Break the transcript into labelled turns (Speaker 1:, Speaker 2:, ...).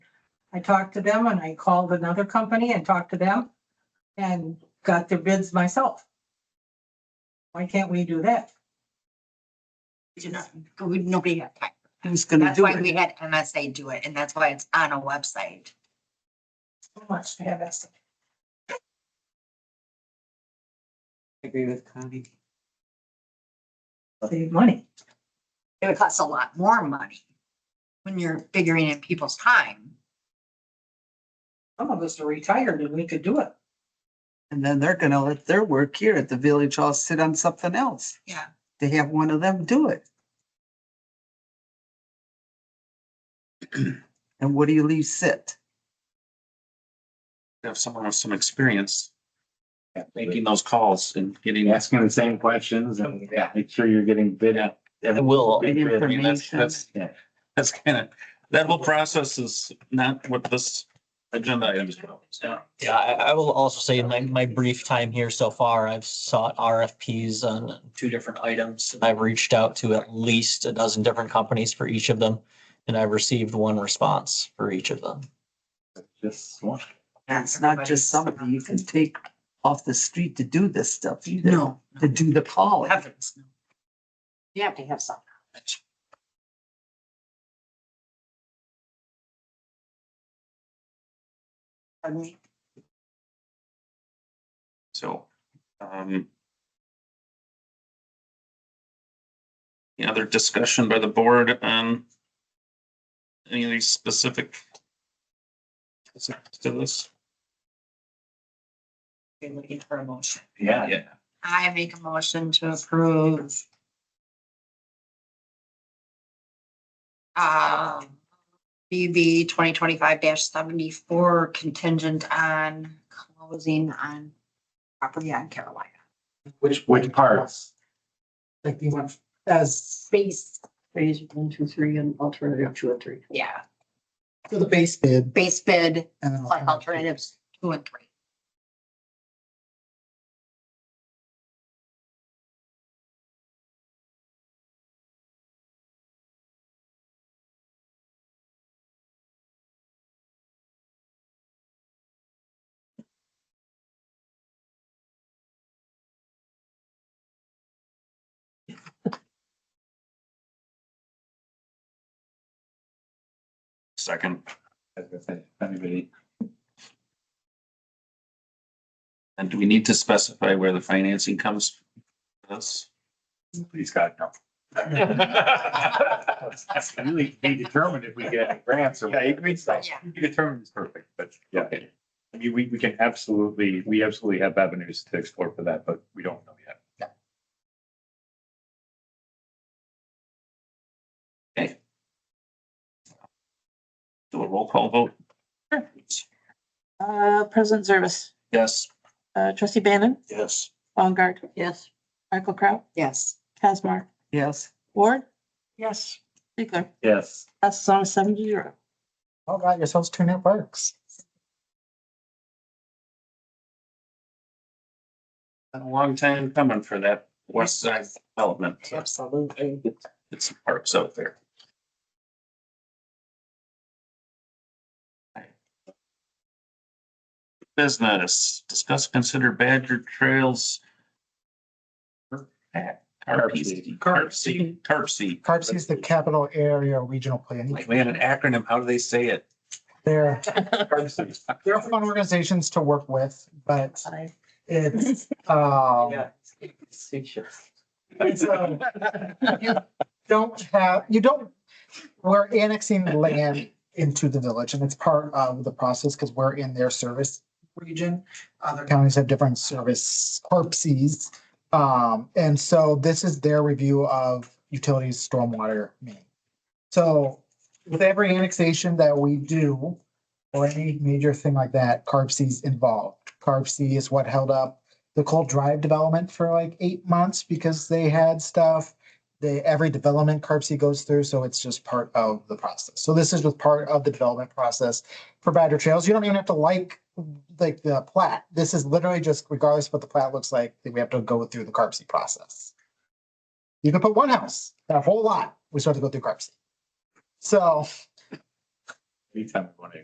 Speaker 1: I talked to them and I called another company and talked to them and got their bids myself. Why can't we do that?
Speaker 2: you know, we- nobody had time.
Speaker 3: Who's gonna
Speaker 2: That's
Speaker 3: do
Speaker 2: why
Speaker 3: it?
Speaker 2: we had MSA do it, and that's why it's on a website.
Speaker 1: So much to have us.
Speaker 3: I Agree with Connie.
Speaker 1: save money.
Speaker 2: It would cost a lot more money when you're figuring in people's time.
Speaker 1: Some of us are retired and we could do it.
Speaker 3: And then they're gonna let their work here at the village hall sit on something else.
Speaker 2: Yeah.
Speaker 3: They have one of them do it. And what do you leave sit?
Speaker 4: have someone with some experience at making those calls and getting.
Speaker 5: asking the same questions and yeah, make sure you're getting bid at.
Speaker 4: It will.
Speaker 3: Good
Speaker 4: I mean, that's-
Speaker 3: information.
Speaker 4: That's,
Speaker 5: Yeah.
Speaker 4: that's kind of, that whole process is not what this agenda item is about. So,
Speaker 6: Yeah, I, I will also say in my, my brief time here so far, I've sought RFPs on two different items. I've reached out to at least a dozen different companies for each of them. And I've received one response for each of them.
Speaker 5: Just one.
Speaker 3: It's not just somebody you can take off the street to do this stuff either.
Speaker 2: No.
Speaker 3: To do
Speaker 2: no,
Speaker 3: the calling.
Speaker 2: Heavens, no. You have to have some. Pardon me?
Speaker 4: so, um. Any other discussion by the board on any of these specific specifics to this?
Speaker 2: You're looking for a motion.
Speaker 5: Yeah.
Speaker 4: Yeah.
Speaker 2: I make a motion to approve. Um, BB twenty twenty-five seventy-four contingent on closing on property on Carolina.
Speaker 5: Which, which parts?
Speaker 7: like the one as
Speaker 2: Base,
Speaker 7: phase one, two, three and alternative two and three.
Speaker 2: yeah,
Speaker 7: For the base bid.
Speaker 2: base bid,
Speaker 7: and an
Speaker 2: plus alternatives, two and three.
Speaker 4: Second,
Speaker 5: As I said, if Anybody?
Speaker 4: and do we need to specify where the financing comes? from? This,
Speaker 5: Please God, no. That's Really, be determined if we get any grants or. Yeah, it means that.
Speaker 2: Yeah.
Speaker 5: You determine is perfect, but yeah. I mean, we, we can absolutely, we absolutely have avenues to explore for that, but we don't know yet.
Speaker 4: do a roll call vote?
Speaker 8: Uh, President Service,
Speaker 4: Yes.
Speaker 8: uh, trustee Bannon,
Speaker 4: Yes.
Speaker 8: Baumgart,
Speaker 7: Yes.
Speaker 8: Michael Kraut,
Speaker 2: Yes.
Speaker 8: Casmar,
Speaker 3: Yes.
Speaker 8: Ward,
Speaker 7: Yes.
Speaker 8: Ziegler.
Speaker 5: Yes.
Speaker 8: Passes on a seven to zero.
Speaker 7: All right, yourselves turn out works.
Speaker 4: Been a long time coming for that west side development. so
Speaker 7: Absolutely.
Speaker 4: It's some parks out there. Business, discuss, consider Badger Trails. Carp seed, carp seed, carp seed.
Speaker 7: CARPC is the capital area regional planning.
Speaker 4: Like, we had an acronym. How do they say it?
Speaker 7: They're, they're fun organizations to work with, but it's, um, it's, um, you don't have, you don't, we're annexing land into the village and it's part of the process because we're in their service region. Other counties have different service corpses. Um, and so this is their review of utilities, stormwater main. So with every annexation that we do or any major thing like that, CARB C is involved. CARB C is what held up the Cold Drive development for like eight months because they had stuff. They, every development CARB C goes through, so it's just part of the process. So this is just part of the development process for Badger Trails. You don't even have to like, like the plat. This is literally just regardless of what the plat looks like, that we have to go through the CARB C process. You can put one house, that whole lot, we still have to go through CARB C. So.
Speaker 5: Anytime we want to